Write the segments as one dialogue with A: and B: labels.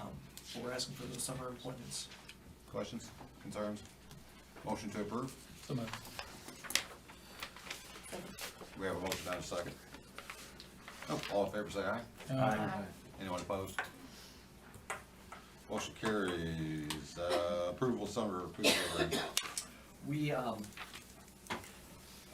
A: Um, We're asking for those summer appointments.
B: Questions, concerns? Motion to approve?
C: So moved.
B: We have a motion and a second. All in favor, say aye.
A: Um,
C: Aye.
B: Anyone opposed? Motion carries. Uh, Approval summer food program.
A: We, um,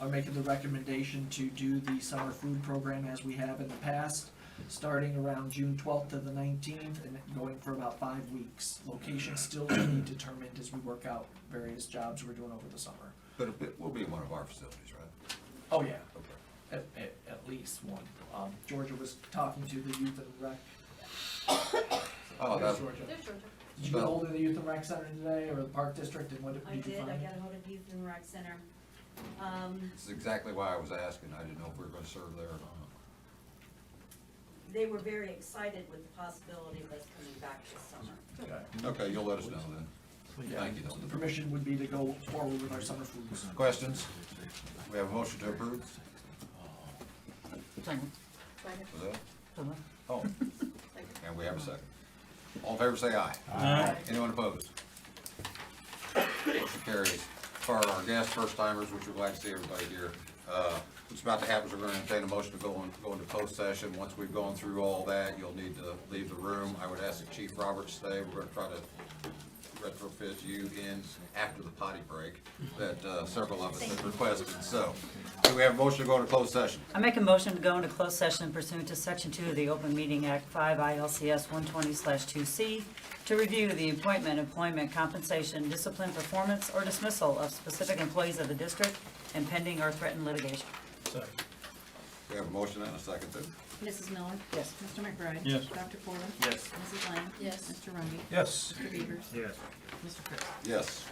A: are making the recommendation to do the summer food program as we have in the past, starting around June twelfth to the nineteenth and going for about five weeks. Location still to be determined as we work out various jobs we're doing over the summer.
B: But it- it will be in one of our facilities, right?
A: Oh, yeah,
B: Okay.
A: at, at, at least one. Um, Georgia was talking to the youth and rec.
B: Oh,
A: There's
B: that-
A: Georgia.
D: There's Georgia.
A: Did you get hold of the youth and rec center today or the park district and what did
D: I
A: you
D: did,
A: find?
D: I got ahold of Youth and Rec Center. Um,
B: This is exactly why I was asking. I didn't know if we were gonna serve there or not.
D: they were very excited with the possibility of us coming back this summer.
B: Okay, you'll let us know then. Thank you,
A: The
B: Dylan.
A: permission would be to go forward with our summer foods.
B: Questions? We have a motion to approve?
E: Second.
B: Was that? Oh, and we have a second. All in favor, say aye.
C: Aye.
B: Anyone opposed? Motion carries. For our guests, first timers, which we're glad to see everybody here, uh, what's about to happen is we're gonna entertain a motion to go in, go into post session. Once we've gone through all that, you'll need to leave the room. I would ask that Chief Roberts stay. We're gonna try to retrofit you in after the potty break that, uh, several of us have requested. So, do we have a motion to go into closed session?
E: I make a motion to go into closed session pursuant to Section 2 of the Open Meeting Act 5 ILCS 120/2C to review the appointment, employment, compensation, discipline, performance, or dismissal of specific employees of the district and pending or threatened litigation.
C: Second.
B: We have a motion and a second then.
F: Mrs. Miller?
E: Yes.
F: Mr. McBride?
C: Yes.
F: Dr. Porter?
G: Yes.
F: Mrs. Lang?
D: Yes.
F: Mr. Rungy?
C: Yes.
F: Mr. Beavers?
G: Yes.
F: Mr. Chris?
B: Yes.